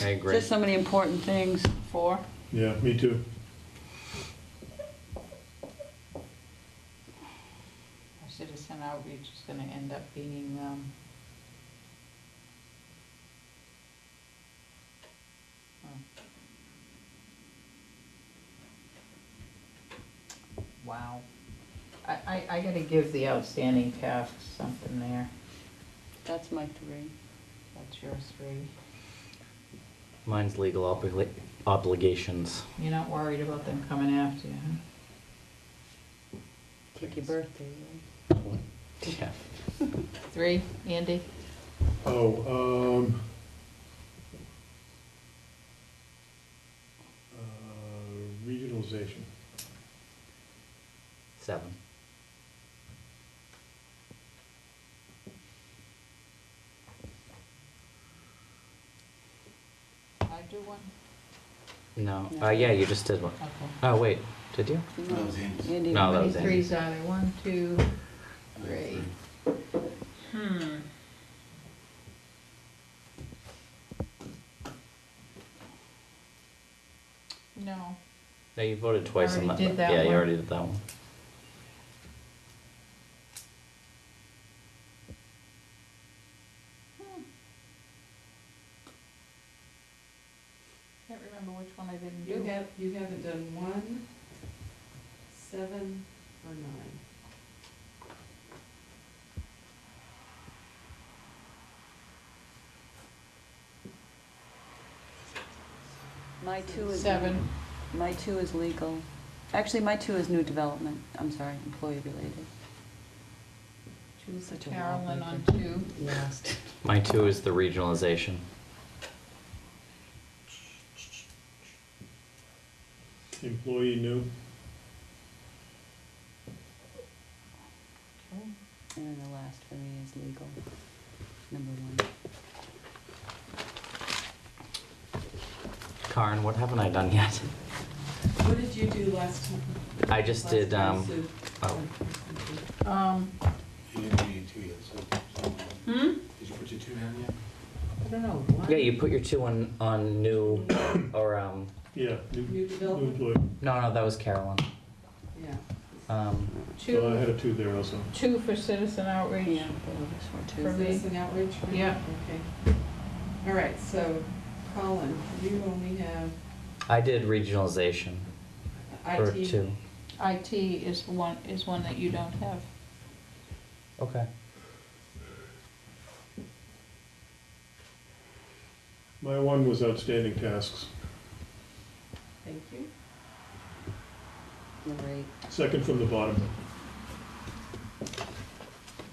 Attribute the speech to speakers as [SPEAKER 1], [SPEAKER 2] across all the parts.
[SPEAKER 1] I agree.
[SPEAKER 2] Just so many important things for,
[SPEAKER 3] Yeah, me too.
[SPEAKER 4] Our citizen outreach is gonna end up being, um, oh. wow. I, I, I gotta give the outstanding tasks something there.
[SPEAKER 2] that's my three.
[SPEAKER 4] That's yours three.
[SPEAKER 1] Mine's legal obli- obligations.
[SPEAKER 4] You're not worried about them coming after you, huh?
[SPEAKER 2] Take your birthday,
[SPEAKER 1] Yeah.
[SPEAKER 4] Three, Andy?
[SPEAKER 3] Oh, um. uh, Regionalization.
[SPEAKER 1] Seven.
[SPEAKER 4] I do one?
[SPEAKER 1] No.
[SPEAKER 2] No.
[SPEAKER 1] Uh, yeah, you just did one.
[SPEAKER 4] Okay.
[SPEAKER 1] Oh, wait. Did you?
[SPEAKER 2] right?
[SPEAKER 5] That was Andy's.
[SPEAKER 2] Andy,
[SPEAKER 1] No, that
[SPEAKER 4] How
[SPEAKER 1] was
[SPEAKER 4] many
[SPEAKER 1] Andy.
[SPEAKER 4] threes are there? One, two, three. Hmm. No,
[SPEAKER 1] No, you voted twice on that.
[SPEAKER 4] already did that
[SPEAKER 1] yeah, you
[SPEAKER 4] one.
[SPEAKER 1] already did that one.
[SPEAKER 4] Hmm. can't remember which one I didn't
[SPEAKER 6] You
[SPEAKER 4] do.
[SPEAKER 6] have, you haven't done one, seven, or nine.
[SPEAKER 2] my two is.
[SPEAKER 4] Seven.
[SPEAKER 2] My two is legal. Actually, my two is new development. I'm sorry, employee related.
[SPEAKER 6] Choose
[SPEAKER 2] Such a
[SPEAKER 4] Carolyn
[SPEAKER 2] wallpaper.
[SPEAKER 4] on two.
[SPEAKER 6] Last.
[SPEAKER 1] My two is the regionalization.
[SPEAKER 3] Employee new,
[SPEAKER 2] And then the last for me is legal, number one.
[SPEAKER 1] Karin, what haven't I done yet?
[SPEAKER 6] What did you do last time?
[SPEAKER 1] I just
[SPEAKER 6] last
[SPEAKER 1] did.
[SPEAKER 6] time,
[SPEAKER 1] Um,
[SPEAKER 6] Sue?
[SPEAKER 1] oh,
[SPEAKER 4] Um,
[SPEAKER 5] You didn't do your two yet, so.
[SPEAKER 4] hmm,
[SPEAKER 5] Did you put your two down yet?
[SPEAKER 4] I don't know, one?
[SPEAKER 1] yeah, you put your two on on new or um.
[SPEAKER 3] yeah, new,
[SPEAKER 6] New
[SPEAKER 3] new
[SPEAKER 6] development,
[SPEAKER 3] employee.
[SPEAKER 1] No, no, that was Carolyn.
[SPEAKER 6] yeah.
[SPEAKER 1] Um,
[SPEAKER 3] So I
[SPEAKER 4] Two,
[SPEAKER 3] had a two there also.
[SPEAKER 4] two for citizen outreach.
[SPEAKER 2] Yeah, those
[SPEAKER 4] For
[SPEAKER 2] were two.
[SPEAKER 4] me.
[SPEAKER 6] Citizen outreach? right?
[SPEAKER 4] Yeah.
[SPEAKER 6] Okay. All right, so Colin, you only have
[SPEAKER 1] I did regionalization for
[SPEAKER 6] IT.
[SPEAKER 1] two.
[SPEAKER 4] IT is the one, is one that you don't have.
[SPEAKER 1] Okay.
[SPEAKER 3] My one was outstanding tasks.
[SPEAKER 6] Thank you.
[SPEAKER 2] Number eight.
[SPEAKER 3] Second from the bottom.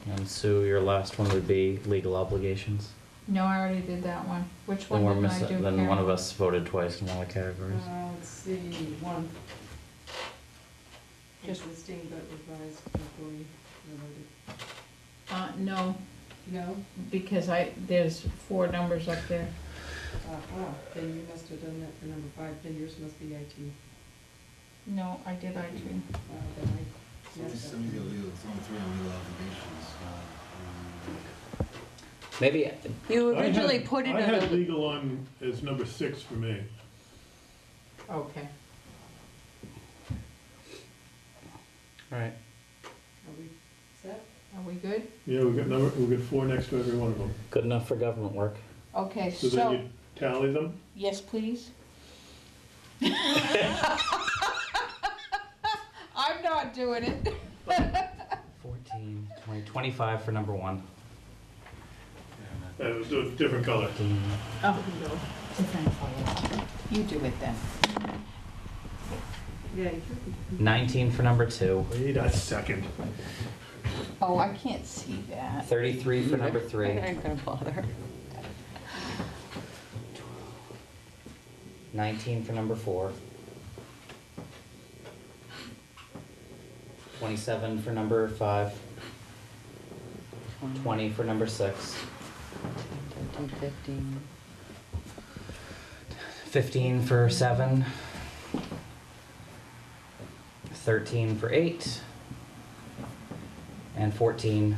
[SPEAKER 1] And Sue, your last one would be legal obligations.
[SPEAKER 4] No, I already did that one. Which
[SPEAKER 1] Then
[SPEAKER 4] one
[SPEAKER 1] we're
[SPEAKER 4] did I do,
[SPEAKER 1] missing. Then one
[SPEAKER 4] Carolyn?
[SPEAKER 1] of us voted twice in one of the categories.
[SPEAKER 6] Uh, let's see, one.
[SPEAKER 4] Just-
[SPEAKER 6] Existing but revised employee related.
[SPEAKER 4] Uh, no,
[SPEAKER 6] No?
[SPEAKER 4] because I, there's four numbers up there.
[SPEAKER 6] Uh, ah, then you must have done that for number five, then yours must be IT.
[SPEAKER 4] No, I did I two.
[SPEAKER 6] Uh, then I-
[SPEAKER 5] So just some of the legal, it's only three on legal obligations, uh,
[SPEAKER 1] Maybe
[SPEAKER 2] You
[SPEAKER 3] I had-
[SPEAKER 2] originally put it
[SPEAKER 3] I had
[SPEAKER 2] under,
[SPEAKER 3] legal on as number six for me.
[SPEAKER 4] Okay.
[SPEAKER 1] All right.
[SPEAKER 6] Are we set?
[SPEAKER 4] Are we good?
[SPEAKER 3] Yeah, we got number, we got four next to every one of them.
[SPEAKER 1] Good enough for government work.
[SPEAKER 4] Okay,
[SPEAKER 3] So then
[SPEAKER 4] so,
[SPEAKER 3] you tally them?
[SPEAKER 4] yes, please. I'm not doing it.
[SPEAKER 1] 14, 20, 25 for number one.
[SPEAKER 5] um,
[SPEAKER 3] That was a different color.
[SPEAKER 4] Oh, no. You do it then.
[SPEAKER 6] Yeah.
[SPEAKER 1] 19 for number two.
[SPEAKER 3] Wait a second.
[SPEAKER 4] Oh, I can't see that.
[SPEAKER 1] 33 for number three.
[SPEAKER 2] I ain't gonna bother.
[SPEAKER 1] 19 for number four. 27 for number five. 20 for number six.
[SPEAKER 2] 13, 15.
[SPEAKER 1] 15 for seven. 13 for eight. And 14